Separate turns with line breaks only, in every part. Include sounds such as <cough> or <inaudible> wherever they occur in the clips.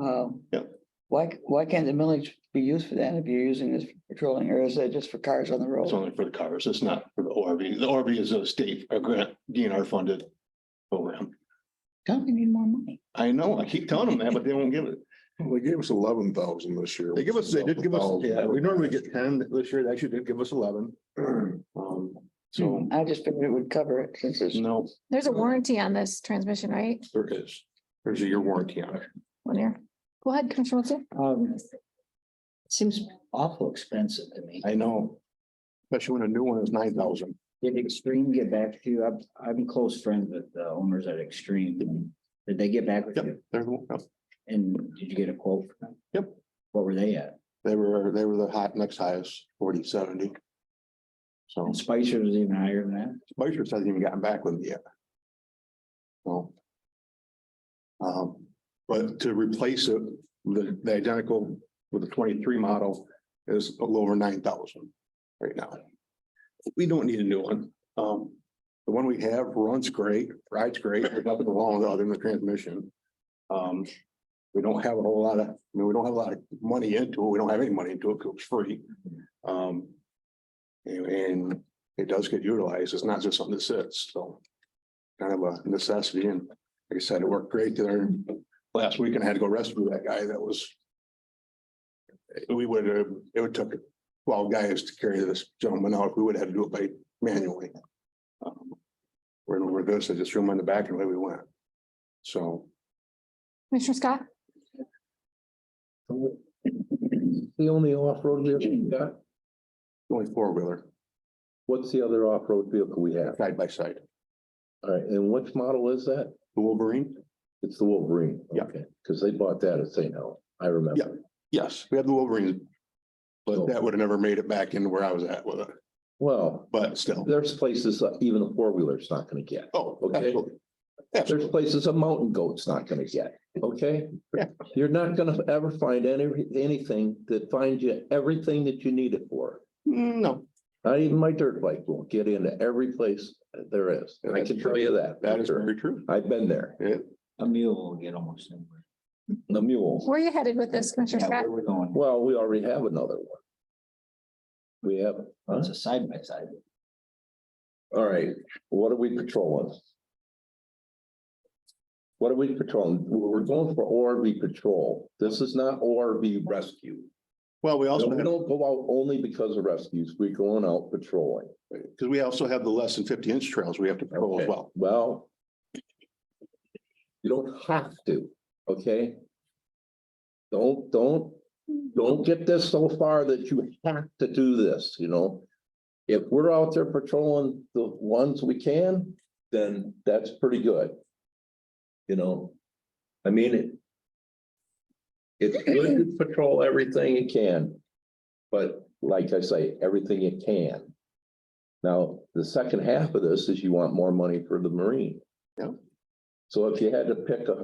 Um,
Yep.
Why, why can't the millage be used for that if you're using this for patrolling or is it just for cars on the road?
It's only for the cars. It's not for the ORV. The ORV is a state, a grant, DNR funded program.
Tell me, need more money.
I know, I keep telling them that, but they won't give it.
Well, They gave us eleven thousand this year.
They give us, they did give us, yeah, we normally get ten this year. They actually did give us eleven. <clears throat> Um,
Hmm.
so,
I just figured it would cover it since it's,
no,
There's a warranty on this transmission, right?
There is, there's a year warranty on it.
One year. Go ahead, Commissioner Wilson.
um, seems awful expensive to me.
I know.
Especially when a new one is nine thousand.
Did Extreme get back to you? I'm, I'm close friends with the owners at Extreme. Did they get back with
Yep.
you?
They're, the- yep.
And did you get a quote from them?
Yep.
What were they at?
they were, they were the hot, next highest, forty seventy. So
And Spicer was even higher than that?
Spicer hasn't even gotten back with me yet. So. Um, but to replace it, the, the identical with the twenty-three model is a little over nine thousand right now. We don't need a new one. Um, the one we have runs great, rides great. There's nothing wrong with it other than the transmission. Um, we don't have a whole lot of, I mean, we don't have a lot of money into it. We don't have any money into it because it's free. Um. and- And it does get utilized. It's not just something that sits, so. Kind of a necessity and like I said, it worked great there. Last weekend I had to go rescue that guy that was. We would have, it would took twelve guys to carry this gentleman out. We would have had to do it by manually. Um, We're in over this. I just threw him on the back and away we went. So
Commissioner Scott,
The only off-road vehicle we got,
only four wheeler,
what's the other off-road vehicle we have?
side by side,
All right, and which model is that?
the Wolverine.
It's the Wolverine.
Yeah.
Okay, Cause they bought that at St. Hel, I
Yeah.
remember.
Yes, we had the Wolverine.
So-
But that would have never made it back into where I was at with it,
Well,
but still.
there's places that even a four-wheeler's not gonna get.
Oh,
Okay.
absolutely.
There's
Absolutely.
places a mountain goat's not gonna get, okay?
Yeah.
You're not gonna ever find any, anything that finds you everything that you need it for.
Mm, No,
Not even my dirt bike will get into every place there is. I can tell you that.
that is very true.
I've been there,
A mule will get almost anywhere.
the mule.
where are you headed with this, Commissioner
Yeah,
Scott?
where we're going.
Well, we already have another one. We have,
It's a side by side.
all right, what are we patrolling? What are we patrolling? We're going for ORV patrol. This is not ORV rescue.
Well, we also,
We
because
don't go out only because of rescues. We're going out patrolling.
we also have the less than fifty inch trails we have to patrol as
Okay,
well.
Well. You don't have to, okay? Don't, don't, don't get this so far that you have to do this, you know? If we're out there patrolling the ones we can, then that's pretty good. You know, I mean it. It's good to patrol everything you can. But like I say, everything you can. Now, the second half of this is you want more money for the Marine.
Yep.
So if you had to pick a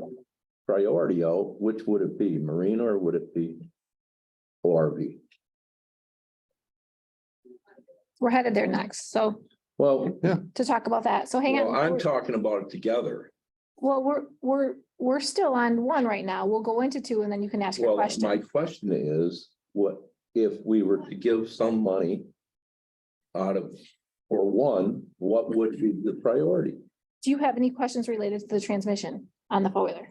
priority out, which would it be, Marine or would it be ORV?
We're headed there next, so
Well,
to talk about that, so hang
well, I'm
on.
talking about it together.
Well, we're, we're, we're still on one right now. We'll go into two and then you can ask your
Well, my
question.
question is, what if we were to give some money out of, for one, what would be the priority?
Do you have any questions related to the transmission on the four-wheeler?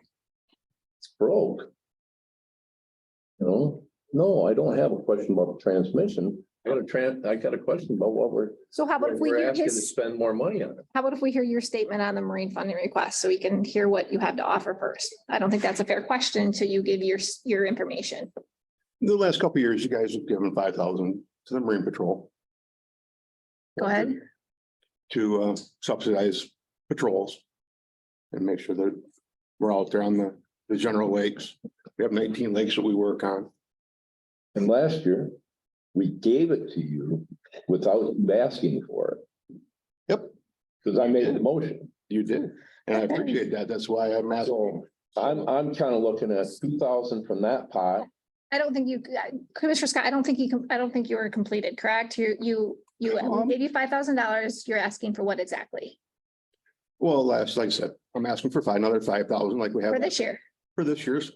It's broke. You know, no, I don't have a question about the transmission. I got a tran, I got a question about what we're
So how about if we
We're
hear
asking to
his,
spend more money on it.
how about if we hear your statement on the marine funding request so we can hear what you have to offer first? I don't think that's a fair question until you give your, s- your information.
The last couple of years, you guys have given five thousand to the Marine Patrol.
Go ahead.
To uh, subsidize patrols. And make sure that we're out there on the, the general lakes. We have nineteen lakes that we work on.
And last year, we gave it to you without you asking for it.
Yep.
Because I made the motion.
You did. And I appreciate that. That's why I'm asking.
I'm, I'm kind of looking at two thousand from that pot.
I don't think you, I- Commissioner Scott, I don't think you, com- I don't think you were completed, correct? You, you, you
Um,
eighty-five thousand dollars, you're asking for what exactly?
Well, last, like I said, I'm asking for five, another five thousand like we have
For this year?
for this year's